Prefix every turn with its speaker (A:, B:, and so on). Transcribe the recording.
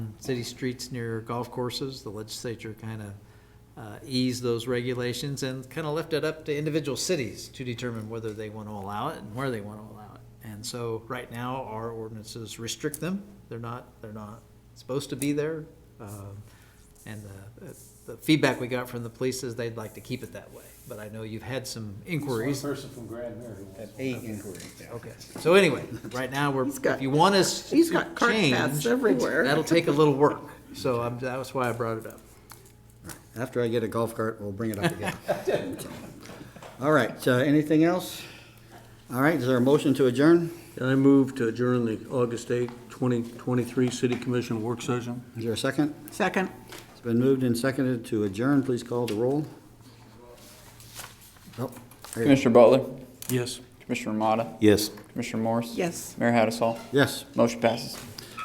A: city streets near golf courses. The legislature kind of uh, eased those regulations and kind of left it up to individual cities to determine whether they want to allow it and where they want to allow it. And so right now, our ordinances restrict them. They're not, they're not supposed to be there. Um, And uh, the, the feedback we got from the police is they'd like to keep it that way. But I know you've had some inquiries.
B: One person from Grand Mary wants.
C: Eight inquiries.
A: Okay, so anyway, right now, we're,
D: He's got-
A: if you want us to
D: he's got cart paths
A: change,
D: everywhere.
A: That'll take a little work, so I'm, that was why I brought it up.
C: After I get a golf cart, we'll bring it up again. All right, uh, anything else? All right, is there a motion to adjourn?
E: And I move to adjourn the August 8, 2023 City Commission work session.
C: Is there a second?
D: Second.
C: It's been moved and seconded to adjourn. Please call the roll. Oh, there you go.
F: Commissioner Butler,
E: Yes.
F: Commissioner Ramada,
G: Yes.
F: Commissioner Morris.
D: Yes.
F: Mayor Hattasol.
C: Yes.
F: Motion passes.